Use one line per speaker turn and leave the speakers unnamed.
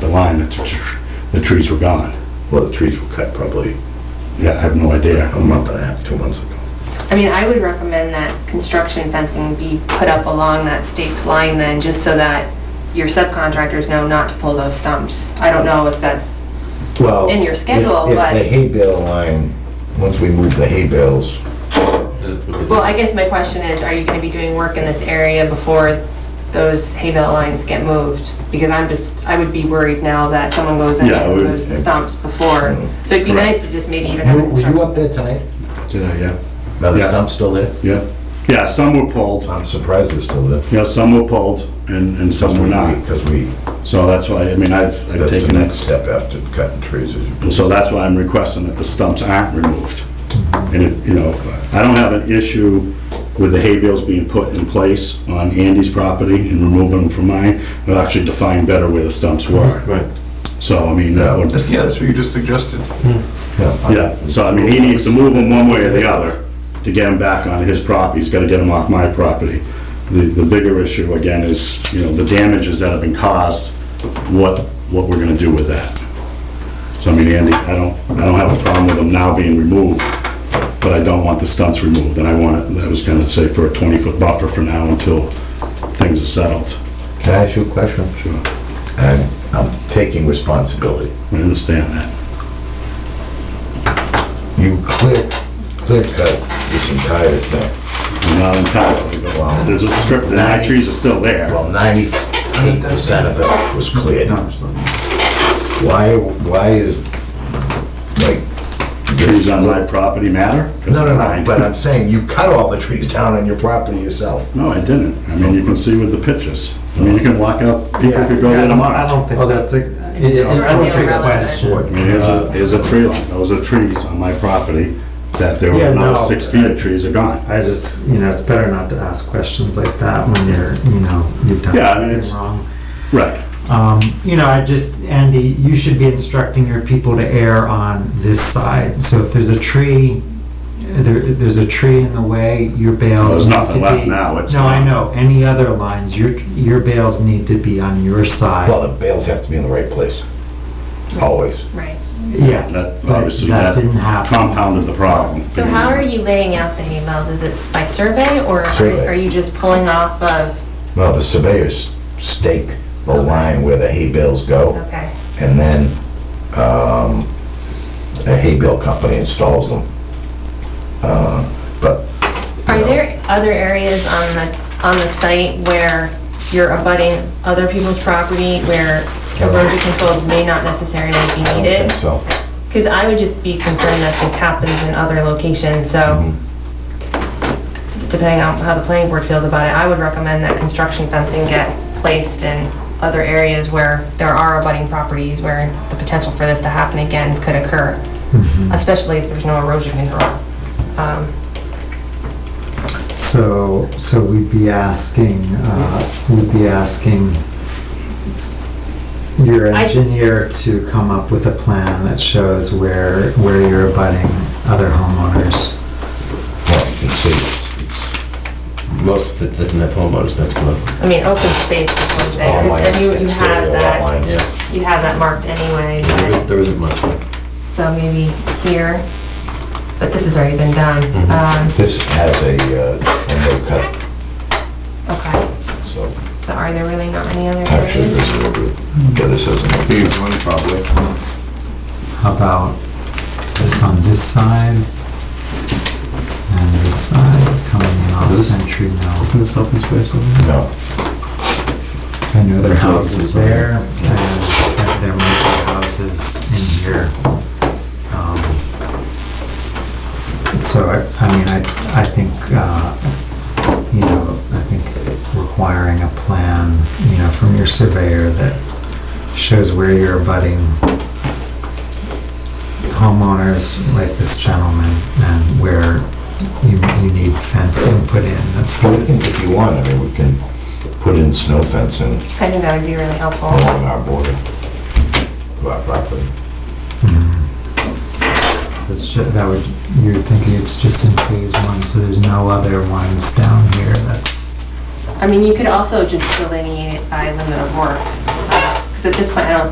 the line, the tr- tr- the trees were gone.
Well, the trees were cut probably
Yeah, I have no idea.
a month and a half, two months ago.
I mean, I would recommend that construction fencing be put up along that staked line then, just so that your subcontractors know not to pull those stumps. I don't know if that's,
Well,
In your
if-
schedule, but-
If the hay bale line, once we move the hay bales,
well, I guess my question is, are you gonna be doing work in this area before those hay bale lines get moved? Because I'm just, I would be worried now that someone goes in
Yeah, I
and
would-
moves the stumps before. So it'd be
Correct.
nice to just maybe even have.
were were you
construction-
up there tonight?
Did I, yeah?
Now, the
Yeah.
stump's still there?
Yeah. Yeah, some were pulled,
I'm surprised it's still there.
yeah, some were pulled and, and some were not.
Because we,
So that's why, I mean, I've, I've
that's the
taken
next
it.
step after cutting trees. is-
And so that's why I'm requesting that the stumps aren't removed. And if, you know, I don't have an issue with the hay bales being put in place on Andy's property and removing them from mine. It'll actually define better where the stumps were.
Right.
So, I mean, that would,
That's, yeah, that's what you just suggested.
Hmm.
yeah, so I mean, he needs to move them one way or the other to get them back on his property. He's gotta get them off my property. The, the bigger issue again is, you know, the damages that have been caused, what, what we're gonna do with that. So I mean, Andy, I don't, I don't have a problem with them now being removed, but I don't want the stunts removed, and I want it, I was gonna say for a twenty-foot buffer for now until things are settled.
Can I ask you a question?
Sure,
I'm, I'm taking responsibility.
I understand that.
You clear, clear cut this entire thing.
Not entirely, but there's a strip, the high trees are still there.
Well, ninety-eight percent of it was cleared. Why, why is, like, this
trees on my property matter?
No, no, no, but
uh,
I'm saying you cut all the trees down on your property yourself.
No, I didn't. I mean, you can see with the pictures. I mean, you can walk up, people could go there
I
tomorrow.
don't think Oh, that's a, it- it- I don't think that's
Irrelevant.
why
What?
I mean, there's a,
Uh,
there's a tree line, those are trees on my property, that there were
Yeah,
another
no.
six feet of trees are gone.
I just, you know, it's better not to ask questions like that when you're, you know, you've done
Yeah, I mean, it's-
something wrong.
Right.
Um, you know, I just, Andy, you should be instructing your people to err on this side. So if there's a tree, there, there's a tree in the way, your bales
There's
need
nothing
to
left
be-
now, it's
No, I
gone.
know, any other lines, your, your bales need to be on your
Well,
side.
the bales have to be in the right place, always.
Right.
Yeah.
That,
but
obviously, that
didn't happen.
compounded the problem.
So how are you laying out the hay bales? Is it by survey or
Survey.
are you just pulling off of,
No, the surveyors stake the line where the hay bales go,
okay,
and then, um, the hay bale company installs them. Uh, But
Are there other areas on the, on the site where you're abutting other people's property where erosion controls may not necessarily be
I don't
needed?
think so.
Because I would just be concerned that this happens in other locations, so
Mm-hmm.
depending on how the planning board feels about it, I would recommend that construction fencing get placed in other areas where there are abutting properties where the potential for this to happen again could occur,
Hmm.
Mm-hmm.
especially if there's no erosion control. Um,
So, so we'd be asking, uh, we'd be asking your
I-
engineer to come up with a plan that shows where, where you're abutting other homeowners.
Well, you can see it's- it's- Most of it doesn't have homeowners next to it.
I mean, open space is one thing,
All line,
because you, you have
Oh, exterior lot
that,
lines.
you have that marked anyway, but-
There isn't much.
so maybe here, but this has already been done. Um,
This has a, uh, window cut,
Um, Okay,
so.
so are there really not any other
Actually,
areas?
there's a little bit, yeah, this isn't,
Huge one, probably.
How about on this side and this side coming in off Century Mill?
This open space over
no.
I know there are houses there and there might be houses in here. Um, So, I I mean, I, I think, uh, you know, I think requiring a plan, you know, from your surveyor that shows where you're abutting homeowners like this gentleman and where you, you need fencing put in, that's
Well, we
good.
can, if you want, I mean, we can put in snow fencing
I think that would be really helpful.
along our border, to our property.
It's ju- that would, you're thinking it's just in phase one, so there's no other ones down here, that's,
I mean, you could also just delineate it by limit of work, because uh, at this point, I don't